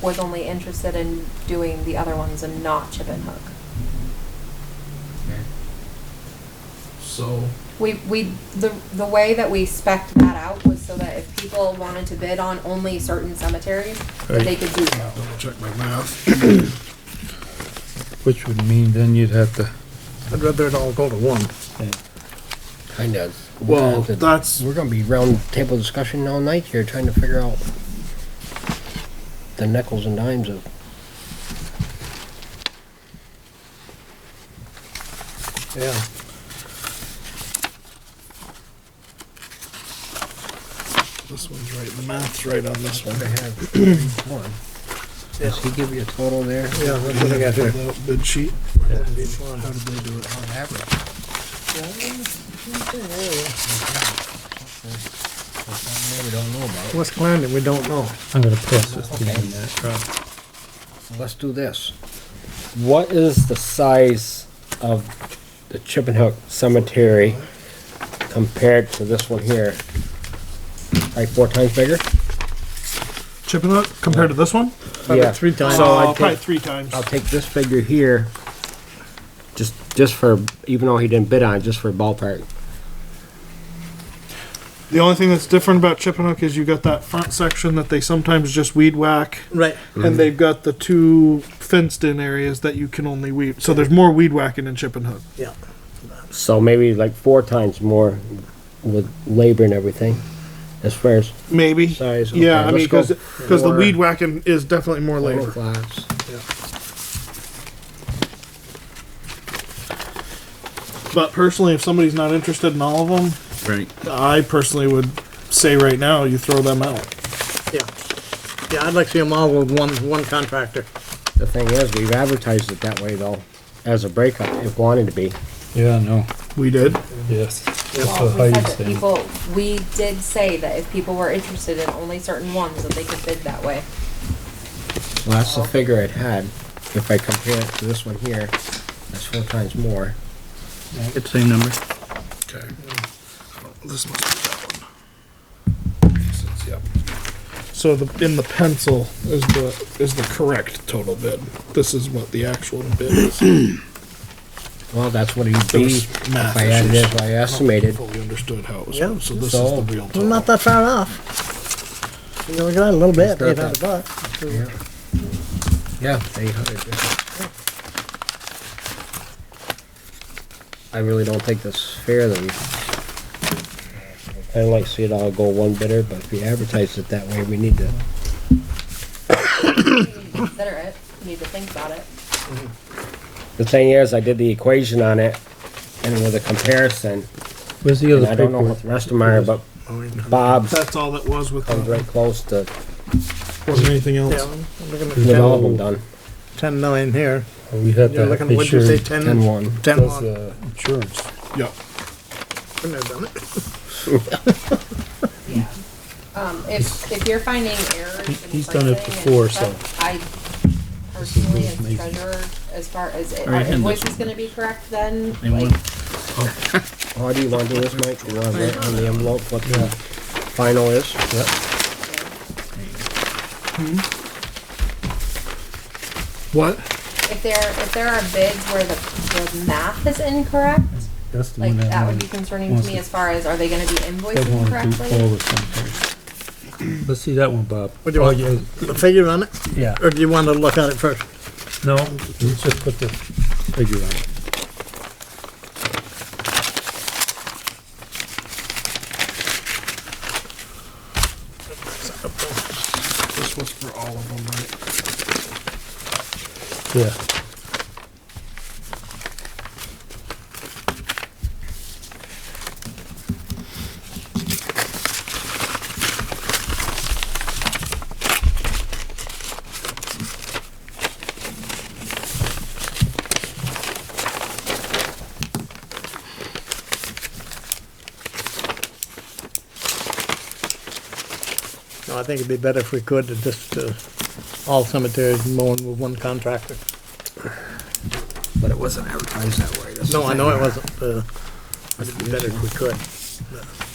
was only interested in doing the other ones and not Chip and Hook. So, We, we, the, the way that we spec'd that out was so that if people wanted to bid on only certain cemeteries, that they could do so. double check my math. Which would mean then you'd have to, I'd rather it all go to one. Kinda. Well, That's a- that's- We're gonna be round table discussion all night here, trying to figure out the nickels and dimes of. Yeah. This one's right, the math's right on this one. what I have. Come on. Does he give you a total there? Yeah, that's what I got here. The bid sheet. How did they do it? On average. Something We don't know about. West Clarendon, we don't know. I'm gonna pass this to you. Rob. Let's do this. What is the size of the Chippenhook Cemetery compared to this one here? Like four times bigger? Chipping up compared to this one? Yeah. Three times. So I'd Probably take, three times. Uh, I'll take this figure here, just, just for, even though he didn't bid on it, just for ballpark. The only thing that's different about Chippenook is you got that front section that they sometimes just weed whack, Right. and they've got the two fenced-in areas that you can only weed. So there's more weed whacking in Chippenook. Yeah. So maybe like four times more with labor and everything, as far as Maybe. size. Yeah, I Okay, mean, let's go because because the for weed whacking is definitely more four labor. flats. But personally, if somebody's not interested in all of Right. them, I personally would say right now you throw them out. Yeah. Yeah, I'd like to see them all with one, one contractor. The thing is, we've advertised it that way though, as a breakup, if wanted to be. Yeah, no, We did. yes. That's Well, what we Heidi said that said. people, we did say that if people were interested in only certain ones, that they could bid that way. Well, that's the figure it had. If I compare it to this one here, that's four times more. It's same number. Okay. This must be that one. Since- Yep. So the, in the pencil is the, is the correct total bid. This is what the actual bid is. Well, that's what it'd There be was if math I added it, issues. if I estimated. Fully understood how it was, Yeah. so this is So- the real Well, not total. that far off. You know, we got a little bit, It's not eight hundred that- bucks. Yeah, eight hundred. I really don't think that's fair that we. I'd like to see it all go one bidder, but if we advertise it that way, we need to. You need to Consider it, you need to think about it. The thing is, I did the equation on it and with a comparison, Where's the and other I don't know paperwork? what the rest of mine are, but Bob's That's all that was with, comes the- right close to wasn't anything Yeah, else. we're looking at getting all of them ten, done. ten million here. We had You're that looking, what'd you picture, say, does ten? Ten one. Ten one. the uh, insurance. Yep. Wouldn't have done it. Um, if, if you're finding errors. in he's done it pricing and before, stuff, I personally, as amazing. treasurer, as far as, it- All right, our hand this invoice is one. gonna be correct then, They like, want- How do you want to do this, Mike? You want to write on the envelope what the final is? What? if there, if there are bids where the, the math is incorrect, That's the like, one that. that would wanted- be concerning to wants me to- as far as, are they gonna be That invoicing wanted to do correctly? all the cemeteries. Let's see that one, Bob. What do you Oh, want? yeah, The figure on it, Yeah, or do you wanna look at it first? no, let's just put the figure on it. This was for all of them, right? Yeah, No, I think it'd be better if we could, to just, uh, all cemeteries mowing with one contractor. But it wasn't advertised that way. No, I know it wasn't, uh, it'd be better if we could.